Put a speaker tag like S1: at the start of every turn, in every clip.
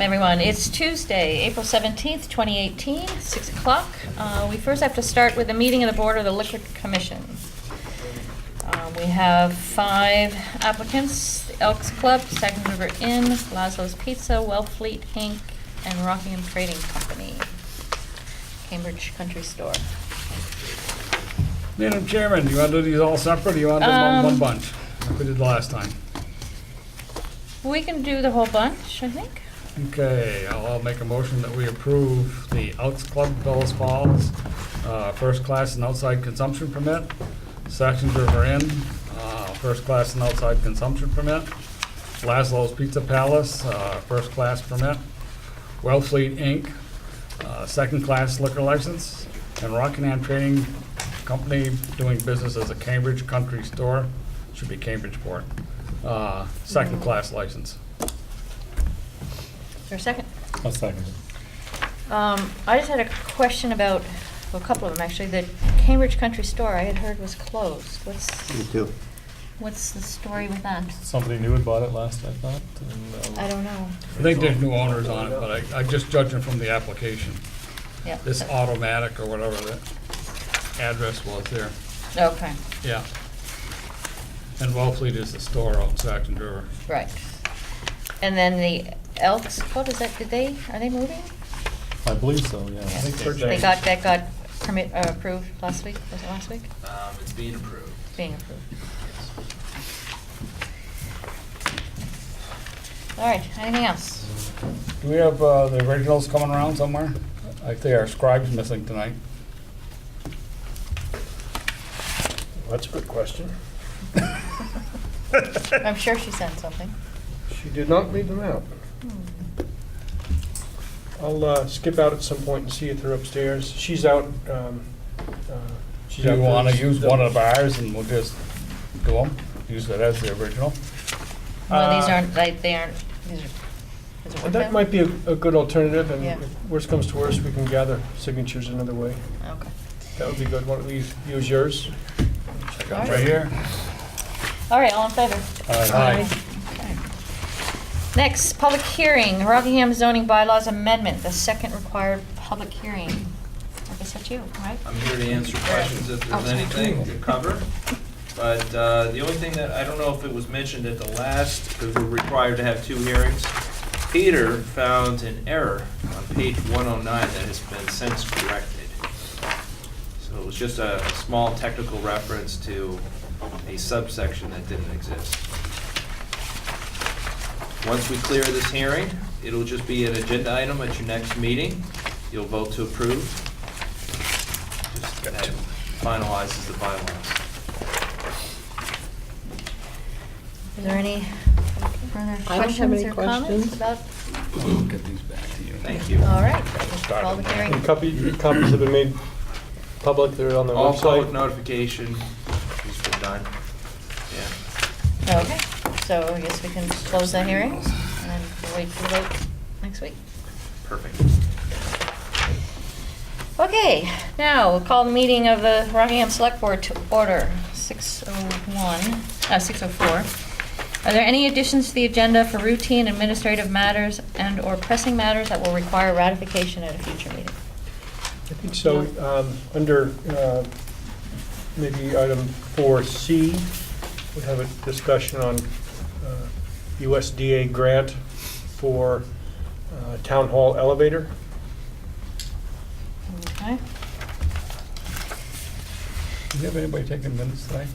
S1: everyone. It's Tuesday, April 17th, 2018, 6 o'clock. Uh, We first have to start with a meeting of the Board of the Liquor Commission. Uh, We have five applicants, the Elks Club, Second River Inn, Lazlo's Pizza, Wellfleet Inc., and Rockingham Trading Company, Cambridge Country Store.
S2: Madam Chairman, do you want to do these all separate, or you want to do them
S1: Um,
S2: in one bunch, like we did last time?
S1: We can do the whole bunch, I think.
S2: Okay, I'll I'll make a motion that we approve the Elks Club Bellas Falls, uh, first class and outside consumption permit, Saxon's River Inn, uh, first class and outside consumption permit, Laszlo's Pizza Palace, uh, first class permit, Wellfleet Inc., uh, second class liquor license, and Rockingham Trading Company doing business as a Cambridge Country Store, should be Cambridgeport, uh, second class license.
S1: Is there a second?
S3: I'll second it.
S1: Um, I just had a question about, well, a couple of them actually. The Cambridge Country Store I had heard was closed. What's,
S4: Me too.
S1: what's the story with that?
S3: Somebody new had bought it last, I thought, and. uh,
S1: I don't know.
S2: I think there's new owners on it, but I, I just judging from the application,
S1: Yeah.
S2: this automatic or whatever the address was there,
S1: Okay,
S2: yeah. And Wellfleet is the store out in Saxon River.
S1: right. And then the Elks, what is that? Did they, are they moving?
S3: I believe so, yeah.
S1: Yeah.
S2: think they're
S1: They
S2: changed.
S1: got, that got permit, uh, approved last week, was it last week?
S5: Um, it's being approved.
S1: Being approved. All right, anything else?
S2: Do we have, uh, the originals coming around somewhere? I think our scribe's missing tonight.
S6: That's a good question.
S1: I'm sure she sent something.
S6: She did not leave them out. I'll uh, skip out at some point and see if they're upstairs. She's out. um, uh,
S2: Do
S6: she's out
S2: you wanna
S6: for-
S2: use one of ours and we'll just do them, use it as the original?
S1: Well, these
S6: Uh,
S1: aren't, they, they aren't, these are, is it
S6: Well,
S1: with
S6: That
S1: them?
S6: might be a a good alternative, and
S1: Yeah.
S6: if worst comes to worst, we can gather signatures another way.
S1: Okay.
S6: That would be good. Why don't we use yours?
S2: Check out right here.
S1: All right, all in favor?
S2: Aye.
S1: Okay. Next, public hearing, Rockingham zoning bylaws amendment, the second required public hearing. I guess that's you, right?
S5: I'm here to answer questions if
S1: Oh,
S5: there's
S1: sorry.
S5: anything to cover. But uh, the only thing that, I don't know if it was mentioned at the last, because we're required to have two hearings. Peter found an error on page 109 that has been since corrected. So it was just a a small technical reference to a subsection that didn't exist. Once we clear this hearing, it'll just be an agenda item at your next meeting. You'll vote to approve. Just that finalizes the bylaws.
S1: Is there any further
S7: I don't have
S1: questions
S7: any
S1: or comments
S7: questions.
S1: about?
S5: Thank you.
S1: All right, public hearing.
S6: And copy, copies have been made public. They're on the
S5: All public
S6: website.
S5: notification has been done. Yeah.
S1: Okay, so I guess we can close the hearing and then we'll wait for the vote next week.
S5: Perfect.
S1: Okay, now we'll call the meeting of the Rockingham Select Board to order, 6:01, uh, 6:04. Are there any additions to the agenda for routine administrative matters and/or pressing matters that will require ratification at a future meeting?
S6: I think so. um, Under uh, maybe item 4C, we have a discussion on uh, USDA grant for uh, town hall elevator.
S1: Okay.
S2: Do you have anybody taking minutes tonight?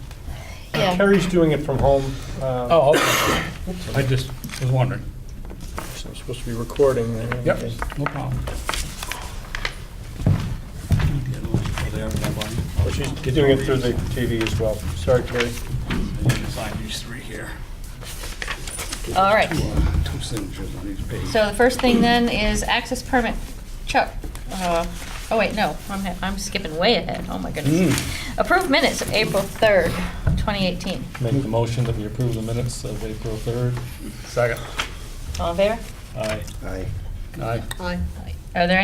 S1: Yeah,
S6: Carrie's doing it from home. uh,
S2: Oh, okay. I just was wondering.
S6: so I'm supposed to be recording. uh,
S2: Yep, no problem.
S6: but She's doing it through the TV as well. Sorry, Carrie.
S1: all right.
S2: Two signatures on each page.
S1: So the first thing then is access permit. Chuck, uh, oh wait, no, I'm I'm skipping way ahead. Oh my goodness. Approved minutes of April 3rd, 2018.
S3: Make the motion that we approve the minutes of April third.
S2: Second.
S1: All in favor?
S3: Aye.
S4: Aye.
S2: Aye.
S1: Are there